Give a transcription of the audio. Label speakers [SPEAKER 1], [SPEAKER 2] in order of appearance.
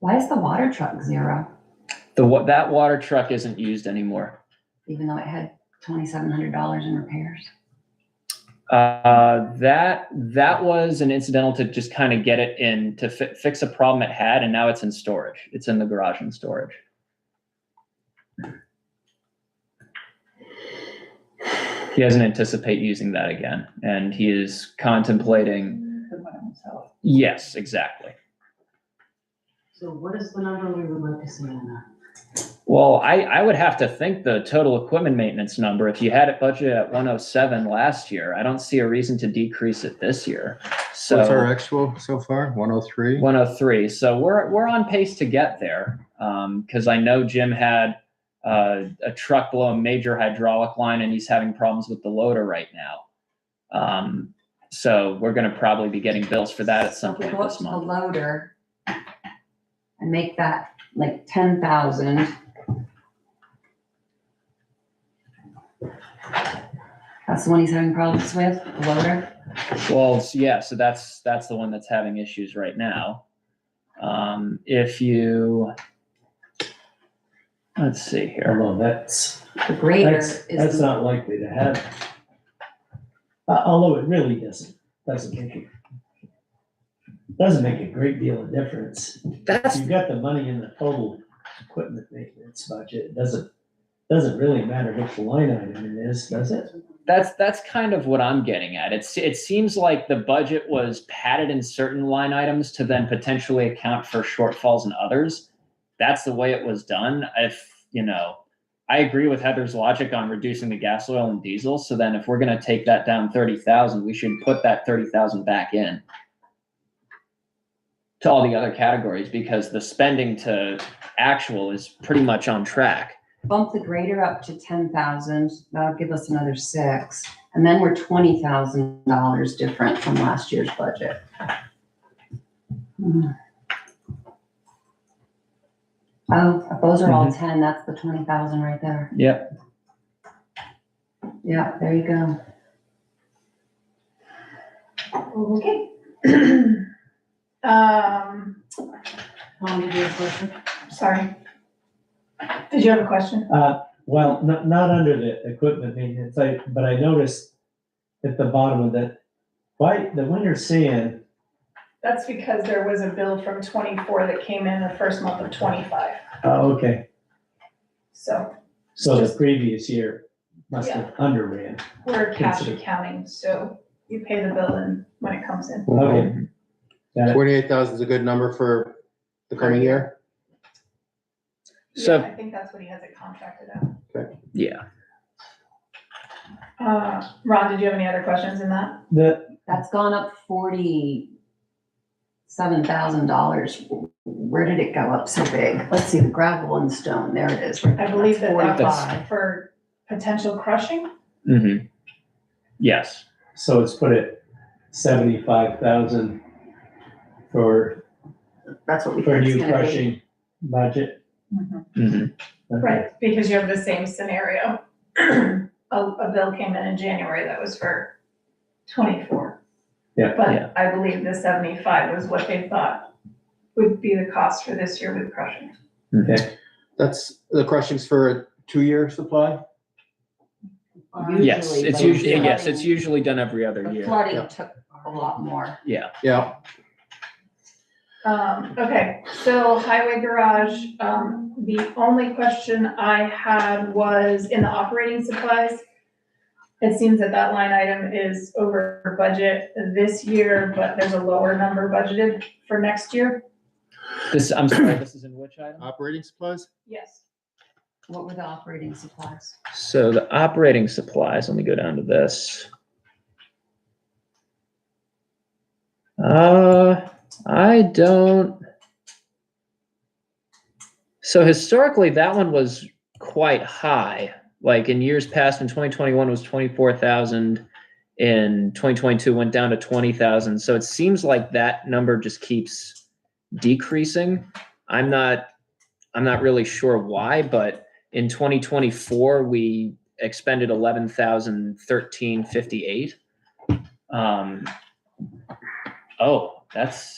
[SPEAKER 1] Why is the water truck zero,
[SPEAKER 2] The what, that water truck isn't used anymore.
[SPEAKER 1] even though it had twenty-seven hundred dollars in repairs?
[SPEAKER 2] Uh, that, that was an incidental to just kind of get it in, to fi- fix a problem it had, and now it's in storage. It's in the garage in storage. He doesn't anticipate using that again, and he is contemplating,
[SPEAKER 3] The one himself.
[SPEAKER 2] yes, exactly.
[SPEAKER 4] So what is the number we would like to see on that?
[SPEAKER 2] Well, I, I would have to think the total equipment maintenance number, if you had it budgeted at one oh seven last year, I don't see a reason to decrease it this year.
[SPEAKER 5] What's our
[SPEAKER 2] So
[SPEAKER 5] actual so far? 103?
[SPEAKER 2] one oh three, so we're, we're on pace to get there. Um, cause I know Jim had, uh, a truck below a major hydraulic line and he's having problems with the loader right now. Um, so we're gonna probably be getting bills for that at some
[SPEAKER 1] If we
[SPEAKER 2] point
[SPEAKER 1] go up
[SPEAKER 2] this
[SPEAKER 1] to the
[SPEAKER 2] month.
[SPEAKER 1] loader and make that like ten thousand. That's the one he's having problems with, the loader?
[SPEAKER 2] Well, s- yeah, so that's, that's the one that's having issues right now. Um, if you, let's see here.
[SPEAKER 6] Although that's,
[SPEAKER 1] The grader
[SPEAKER 6] that's,
[SPEAKER 1] is.
[SPEAKER 6] that's
[SPEAKER 1] the-
[SPEAKER 6] not likely to happen. Uh, Although it really doesn't, doesn't make it, doesn't make a great deal of difference.
[SPEAKER 2] That's,
[SPEAKER 6] You've got the money in the total equipment maintenance budget, it doesn't, doesn't really matter which line item it is, does it?
[SPEAKER 2] that's, that's kind of what I'm getting at. It's, it seems like the budget was padded in certain line items to then potentially account for shortfalls in others. That's the way it was done. If, you know, I agree with Heather's logic on reducing the gas, oil and diesel. So then if we're gonna take that down thirty thousand, we should put that thirty thousand back in. to all the other categories because the spending to actual is pretty much on track.
[SPEAKER 1] Bump the grader up to ten thousand, that'll give us another six, and then we're twenty thousand dollars different from last year's budget. Hmm. Oh, if those are all ten, that's the twenty thousand right there.
[SPEAKER 2] Yep.
[SPEAKER 1] Yeah, there you go.
[SPEAKER 3] Okay. Um,
[SPEAKER 4] Tom, did you have a question?
[SPEAKER 3] sorry. Did you have a question?
[SPEAKER 6] Uh, well, not, not under the equipment maintenance, I, but I noticed at the bottom of that, why, the winter sand
[SPEAKER 3] That's because there was a bill from twenty-four that came in the first month of twenty-five,
[SPEAKER 6] Oh, okay,
[SPEAKER 3] so
[SPEAKER 6] so the
[SPEAKER 3] Just-
[SPEAKER 6] previous year must have underran.
[SPEAKER 3] we're cash
[SPEAKER 6] Consider-
[SPEAKER 3] accounting, so you pay the bill in when it comes in.
[SPEAKER 6] Okay. Got it.
[SPEAKER 5] 28,000 is a good number for the coming year?
[SPEAKER 2] So-
[SPEAKER 3] Yeah, I think that's what he has it contracted out.
[SPEAKER 2] Yeah.
[SPEAKER 3] Uh, Ron, did you have any other questions in that?
[SPEAKER 6] The,
[SPEAKER 1] That's gone up forty-seven thousand dollars. Where did it go up so big? Let's see, the gravel and stone, there it is. right
[SPEAKER 3] I
[SPEAKER 1] there,
[SPEAKER 3] believe
[SPEAKER 1] that's
[SPEAKER 3] that that was
[SPEAKER 1] Forty-five.
[SPEAKER 3] for potential crushing,
[SPEAKER 2] Mm-hmm. Yes.
[SPEAKER 6] so it's put at seventy-five thousand for,
[SPEAKER 1] That's what we
[SPEAKER 6] for
[SPEAKER 1] think it's
[SPEAKER 6] new
[SPEAKER 1] gonna be.
[SPEAKER 6] crushing budget.
[SPEAKER 2] Mm-hmm.
[SPEAKER 6] Okay.
[SPEAKER 3] right, because you have the same scenario. A, a bill came in in January that was for twenty-four.
[SPEAKER 6] Yeah.
[SPEAKER 2] Yeah.
[SPEAKER 3] But I believe the seventy-five was what they thought would be the cost for this year with crushing.
[SPEAKER 5] That's, the crushing's for a two-year supply?
[SPEAKER 2] Yes, it's
[SPEAKER 1] but
[SPEAKER 2] usually, yes,
[SPEAKER 1] flooding-
[SPEAKER 2] it's usually done every other
[SPEAKER 1] The
[SPEAKER 2] year.
[SPEAKER 5] Yeah.
[SPEAKER 1] flooding took a lot more.
[SPEAKER 2] Yeah.
[SPEAKER 5] Yeah,
[SPEAKER 3] Um, okay, so highway garage, um, the only question I had was in the operating supplies. It seems that that line item is over budget this year, but there's a lower number budgeted for next year.
[SPEAKER 2] This, I'm sorry, this is in which item?
[SPEAKER 5] operating supplies?
[SPEAKER 3] Yes.
[SPEAKER 1] What were the operating supplies?
[SPEAKER 2] So the operating supplies, let me go down to this. Uh, I don't. So historically, that one was quite high. Like in years past, in 2021 it was 24,000. In 2022 went down to 20,000. So it seems like that number just keeps decreasing. I'm not I'm not really sure why, but in 2024 we expended 11,013.58. Um, oh, that's